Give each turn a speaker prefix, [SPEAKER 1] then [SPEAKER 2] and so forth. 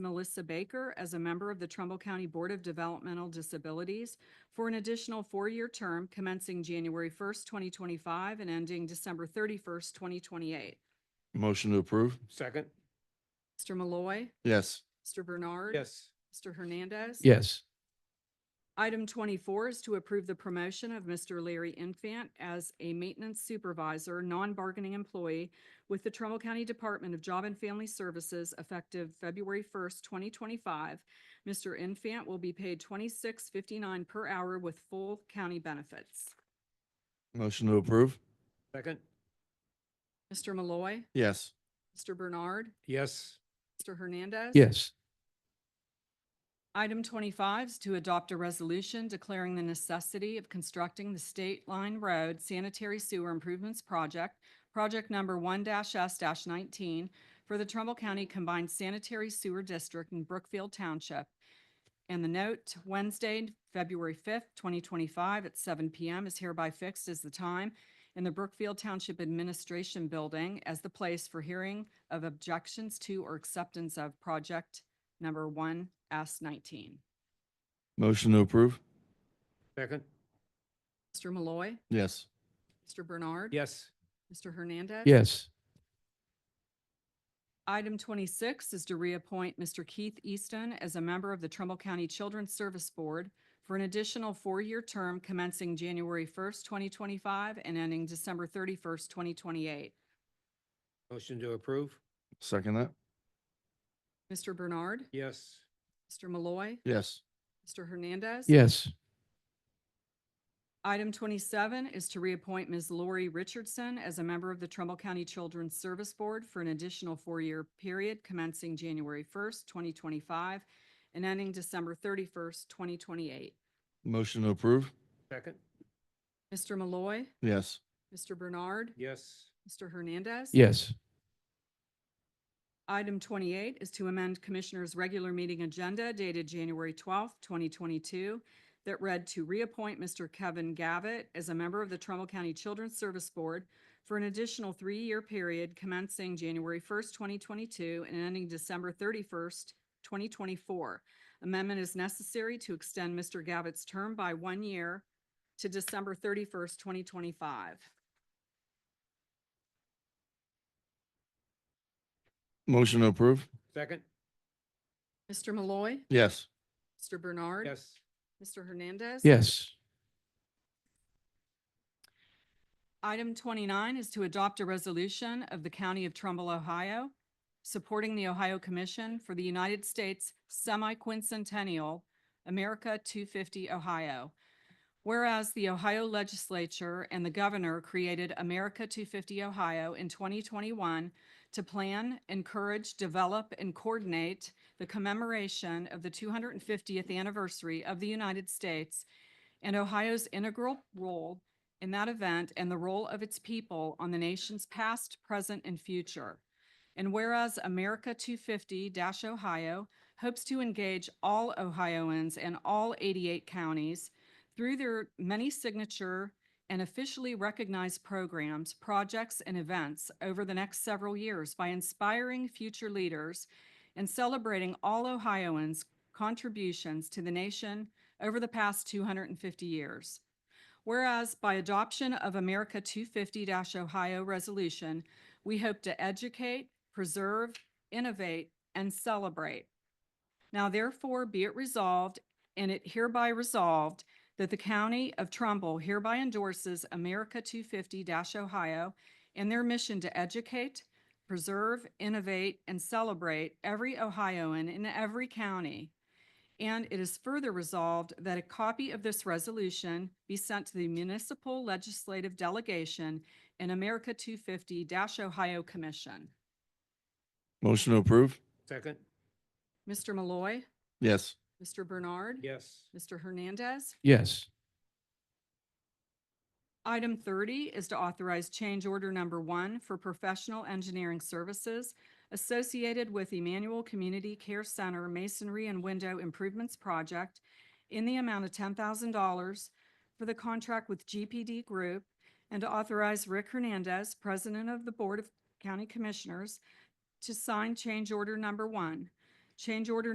[SPEAKER 1] Melissa Baker as a member of the Trumbull County Board of Developmental Disabilities for an additional four-year term commencing January first, twenty twenty-five and ending December thirty-first, twenty twenty-eight.
[SPEAKER 2] Motion to approve?
[SPEAKER 3] Second?
[SPEAKER 1] Mr. Malloy,
[SPEAKER 2] Yes.
[SPEAKER 1] Mr. Bernard.
[SPEAKER 3] Yes.
[SPEAKER 1] Mr. Hernandez.
[SPEAKER 2] Yes.
[SPEAKER 1] Item twenty-four is to approve the promotion of Mr. Larry Infant as a maintenance supervisor, non-bargaining employee with the Trumbull County Department of Job and Family Services effective February first, twenty twenty-five. Mr. Infant will be paid twenty-six fifty-nine per hour with full county benefits.
[SPEAKER 2] Motion to approve?
[SPEAKER 3] Second?
[SPEAKER 1] Mr. Malloy,
[SPEAKER 2] Yes.
[SPEAKER 1] Mr. Bernard,
[SPEAKER 3] Yes.
[SPEAKER 1] Mr. Hernandez.
[SPEAKER 2] Yes.
[SPEAKER 1] Item twenty-five is to adopt a resolution declaring the necessity of constructing the State Line Road Sanitary Sewer Improvements Project, project number one S nineteen for the Trumbull County Combined Sanitary Sewer District in Brookfield Township. And the note, Wednesday, February fifth, twenty twenty-five at seven PM is hereby fixed as the time in the Brookfield Township Administration Building as the place for hearing of objections to or acceptance of project number one S nineteen.
[SPEAKER 2] Motion to approve?
[SPEAKER 3] Second?
[SPEAKER 1] Mr. Malloy,
[SPEAKER 2] Yes.
[SPEAKER 1] Mr. Bernard.
[SPEAKER 3] Yes.
[SPEAKER 1] Mr. Hernandez.
[SPEAKER 2] Yes.
[SPEAKER 1] Item twenty-six is to reappoint Mr. Keith Easton as a member of the Trumbull County Children's Service Board for an additional four-year term commencing January first, twenty twenty-five and ending December thirty-first, twenty twenty-eight.
[SPEAKER 3] Motion to approve?
[SPEAKER 2] Second that?
[SPEAKER 1] Mr. Bernard,
[SPEAKER 3] Yes.
[SPEAKER 1] Mr. Malloy,
[SPEAKER 2] Yes.
[SPEAKER 1] Mr. Hernandez.
[SPEAKER 2] Yes.
[SPEAKER 1] Item twenty-seven is to reappoint Ms. Lori Richardson as a member of the Trumbull County Children's Service Board for an additional four-year period commencing January first, twenty twenty-five and ending December thirty-first, twenty twenty-eight.
[SPEAKER 2] Motion to approve?
[SPEAKER 3] Second?
[SPEAKER 1] Mr. Malloy,
[SPEAKER 2] Yes.
[SPEAKER 1] Mr. Bernard,
[SPEAKER 3] Yes.
[SPEAKER 1] Mr. Hernandez.
[SPEAKER 2] Yes.
[SPEAKER 1] Item twenty-eight is to amend Commissioners' regular meeting agenda dated January twelfth, twenty twenty-two that read to reappoint Mr. Kevin Gavitt as a member of the Trumbull County Children's Service Board for an additional three-year period commencing January first, twenty twenty-two and ending December thirty-first, twenty twenty-four. Amendment is necessary to extend Mr. Gavitt's term by one year to December thirty-first, twenty twenty-five.
[SPEAKER 2] Motion to approve?
[SPEAKER 3] Second?
[SPEAKER 1] Mr. Malloy,
[SPEAKER 2] Yes.
[SPEAKER 1] Mr. Bernard.
[SPEAKER 3] Yes.
[SPEAKER 1] Mr. Hernandez.
[SPEAKER 2] Yes.
[SPEAKER 1] Item twenty-nine is to adopt a resolution of the County of Trumbull, Ohio, supporting the Ohio Commission for the United States Semi-Quincentennial America two fifty Ohio. Whereas the Ohio Legislature and the Governor created America two fifty Ohio in twenty twenty-one to plan, encourage, develop, and coordinate the commemoration of the two hundred and fiftieth anniversary of the United States and Ohio's integral role in that event and the role of its people on the nation's past, present, and future. And whereas America 250-Ohio hopes to engage all Ohioans and all 88 counties through their many signature and officially recognized programs, projects, and events over the next several years by inspiring future leaders and celebrating all Ohioans' contributions to the nation over the past 250 years. Whereas by adoption of America 250-Ohio Resolution, we hope to educate, preserve, innovate, and celebrate. Now therefore be it resolved, and it hereby resolved, that the County of Trumbull hereby endorses America 250-Ohio and their mission to educate, preserve, innovate, and celebrate every Ohioan in every county. And it is further resolved that a copy of this resolution be sent to the municipal legislative delegation and America 250-Ohio Commission.
[SPEAKER 2] Motion to approve?
[SPEAKER 3] Second?
[SPEAKER 1] Mr. Malloy,
[SPEAKER 2] Yes.
[SPEAKER 1] Mr. Bernard.
[SPEAKER 3] Yes.
[SPEAKER 1] Mr. Hernandez.
[SPEAKER 2] Yes.
[SPEAKER 1] Item thirty is to authorize change order number one for professional engineering services associated with Emmanuel Community Care Center Masonry and Window Improvements Project in the amount of ten thousand dollars for the contract with GPD Group and to authorize Rick Hernandez, President of the Board of County Commissioners, to sign change order number one. Change order